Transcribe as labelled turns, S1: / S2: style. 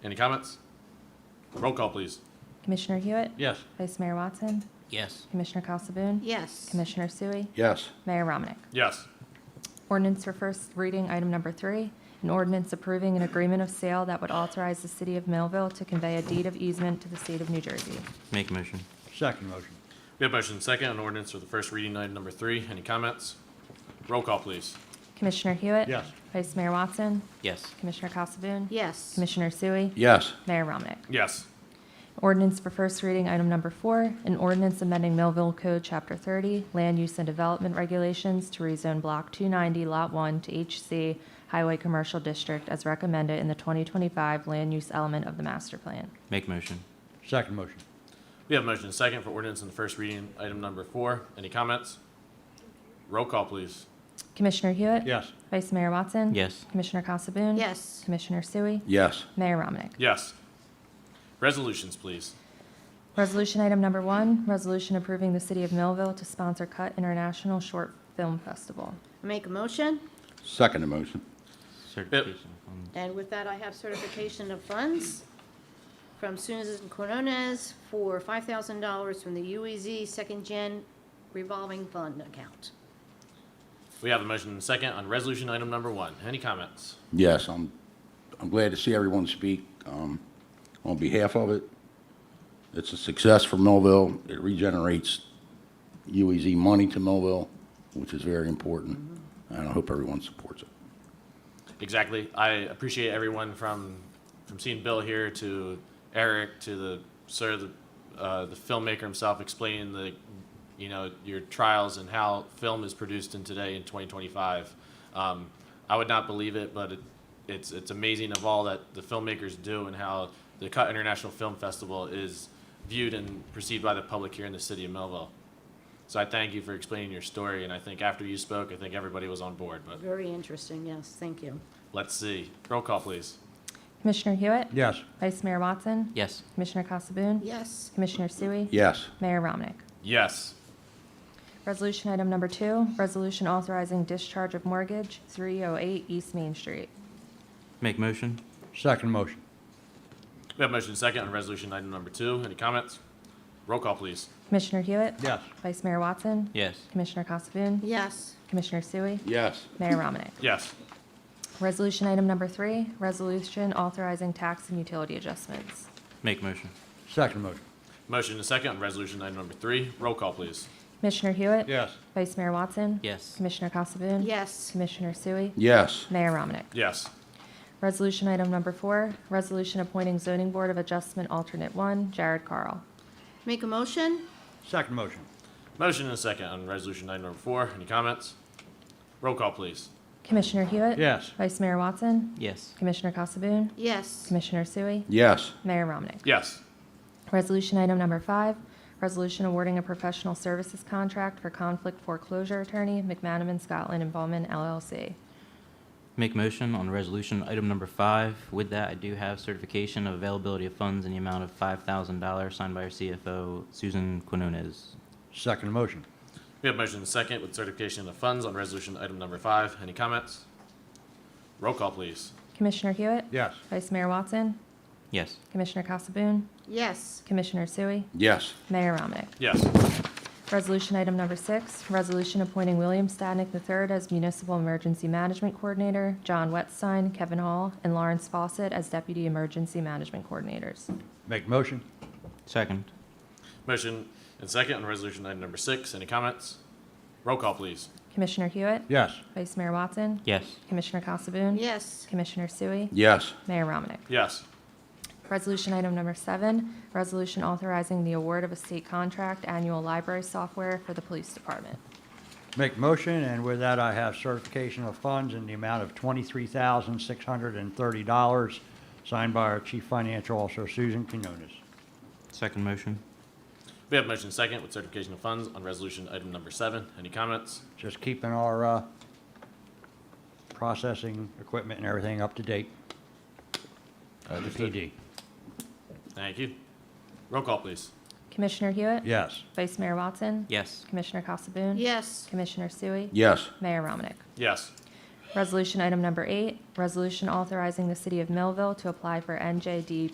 S1: Any comments? Roll call, please.
S2: Commissioner Hewitt?
S1: Yes.
S2: Vice Mayor Watson?
S3: Yes.
S2: Commissioner Casabun?
S4: Yes.
S2: Commissioner Sui?
S5: Yes.
S2: Mayor Romanek?
S1: Yes.
S2: Ordinance for first reading, item number three, an ordinance approving an agreement of sale that would authorize the city of Millville to convey a deed of easement to the state of New Jersey.
S3: Make a motion.
S5: Second motion.
S1: We have motion and second on ordinance for the first reading, item number three. Any comments? Roll call, please.
S2: Commissioner Hewitt?
S5: Yes.
S2: Vice Mayor Watson?
S3: Yes.
S2: Commissioner Casabun?
S4: Yes.
S2: Commissioner Sui?
S5: Yes.
S2: Mayor Romanek?
S1: Yes.
S2: Ordinance for first reading, item number four, an ordinance amending Millville Code, Chapter 30, Land Use and Development Regulations to rezone Block 290, Lot 1 to HC Highway Commercial District as recommended in the 2025 land use element of the master plan.
S3: Make a motion.
S5: Second motion.
S1: We have motion and second for ordinance in the first reading, item number four. Any comments? Roll call, please.
S2: Commissioner Hewitt?
S5: Yes.
S2: Vice Mayor Watson?
S3: Yes.
S2: Commissioner Casabun?
S4: Yes.
S2: Commissioner Sui?
S5: Yes.
S2: Mayor Romanek?
S1: Yes. Resolutions, please.
S2: Resolution item number one, resolution approving the city of Millville to sponsor Cut International Short Film Festival.
S4: Make a motion,
S5: Second motion.
S3: Certification on
S4: and with that, I have certification of funds from Susan Quinones for $5,000 from the UEZ Second Gen Revolving Fund Account.
S1: We have a motion and second on resolution item number one. Any comments?
S5: Yes, I'm, I'm glad to see everyone speak um, on behalf of it. It's a success for Millville. It regenerates UEZ money to Millville, which is very important, and I hope everyone supports it.
S1: Exactly. I appreciate everyone from from seeing Bill here to Eric to the sir, the uh, the filmmaker himself, explaining the you know your trials and how film is produced in today in 2025. Um, I would not believe it, but it, it's it's amazing of all that the filmmakers do and how the Cut International Film Festival is viewed and perceived by the public here in the city of Melville. So I thank you for explaining your story, and I think after you spoke, I think everybody was on board. But
S4: Very interesting, yes, thank you.
S1: Let's see. Roll call, please.
S2: Commissioner Hewitt?
S5: Yes.
S2: Vice Mayor Watson?
S3: it. Yes.
S2: Commissioner Casabun?
S4: Yes.
S2: Commissioner Sui?
S5: Yes.
S2: Mayor Romanek?
S1: Yes.
S2: Resolution item number two, resolution authorizing discharge of mortgage, 308 East Main Street.
S3: Make a motion.
S5: Second motion.
S1: We have motion second on resolution item number two. Any comments? Roll call, please.
S2: Commissioner Hewitt?
S5: Yes.
S2: Vice Mayor Watson?
S3: Yes.
S2: Commissioner Casabun?
S4: Yes.
S2: Commissioner Sui?
S5: Yes.
S2: Mayor Romanek?
S1: Yes.
S2: Resolution item number three, resolution authorizing tax and utility adjustments.
S3: Make a motion.
S5: Second motion.
S1: Motion and second on resolution item number three. Roll call, please.
S2: Commissioner Hewitt?
S5: Yes.
S2: Vice Mayor Watson?
S3: Yes.
S2: Commissioner Casabun?
S4: Yes.
S2: Commissioner Sui?
S5: Yes.
S2: Mayor Romanek?
S1: Yes.
S2: Resolution item number four, resolution appointing zoning board of adjustment alternate one, Jared Carl.
S4: Make a motion,
S5: Second motion.
S1: Motion and second on resolution item number four. Any comments? Roll call, please.
S2: Commissioner Hewitt?
S5: Yes.
S2: Vice Mayor Watson?
S3: Yes.
S2: Commissioner Casabun?
S4: yes.
S2: Commissioner Sui?
S5: Yes.
S2: Mayor Romanek?
S1: Yes.
S2: Resolution item number five, resolution awarding a professional services contract for conflict foreclosure attorney McManaman Scotland and Bowman LLC.
S3: Make a motion on resolution item number five. With that, I do have certification of availability of funds in the amount of five thousand dollars signed by our CFO, Susan Quinones.
S5: Second motion.
S1: We have motion and second with certification of funds on resolution item number five. Any comments? Roll call, please.
S2: Commissioner Hewitt?
S5: Yes.
S2: Vice Mayor Watson?
S3: Yes.
S2: Commissioner Casabun?
S4: Yes.
S2: Commissioner Sui?
S5: Yes.
S2: Mayor Romanek?
S1: Yes.
S2: Resolution item number six, resolution appointing William Stadnick III as Municipal Emergency Management Coordinator, John Wetstein, Kevin Hall, and Lawrence Fawcett as Deputy Emergency Management Coordinators.
S5: Make motion.
S3: Second.
S1: Motion and second on resolution item number six. Any comments? Roll call, please.
S2: Commissioner Hewitt?
S5: Yes.
S2: Vice Mayor Watson?
S3: Yes.
S2: Commissioner Casabun?
S4: Yes.
S2: Commissioner Sui?
S5: Yes.
S2: Mayor Romanek?
S1: Yes.
S2: Resolution item number seven, resolution authorizing the award of a state contract, annual library software for the police department.
S6: Make motion, and with that, I have certification of funds in the amount of $23,630, signed by our Chief Financial Officer, Susan Quinones.
S3: Second motion.
S1: We have motion second with certification of funds on resolution item number seven. Any comments?
S6: Just keeping our uh, processing equipment and everything up to date. The PD.
S1: Thank you. Roll call, please.
S2: Commissioner Hewitt?
S6: Yes.
S2: Vice Mayor Watson?
S3: Yes.
S2: Commissioner Casabun?
S4: Yes.
S2: Commissioner Sui?
S5: Yes.
S2: Mayor Romanek?
S1: Yes.
S2: Resolution item number eight, resolution authorizing the city of Millville to apply for NJD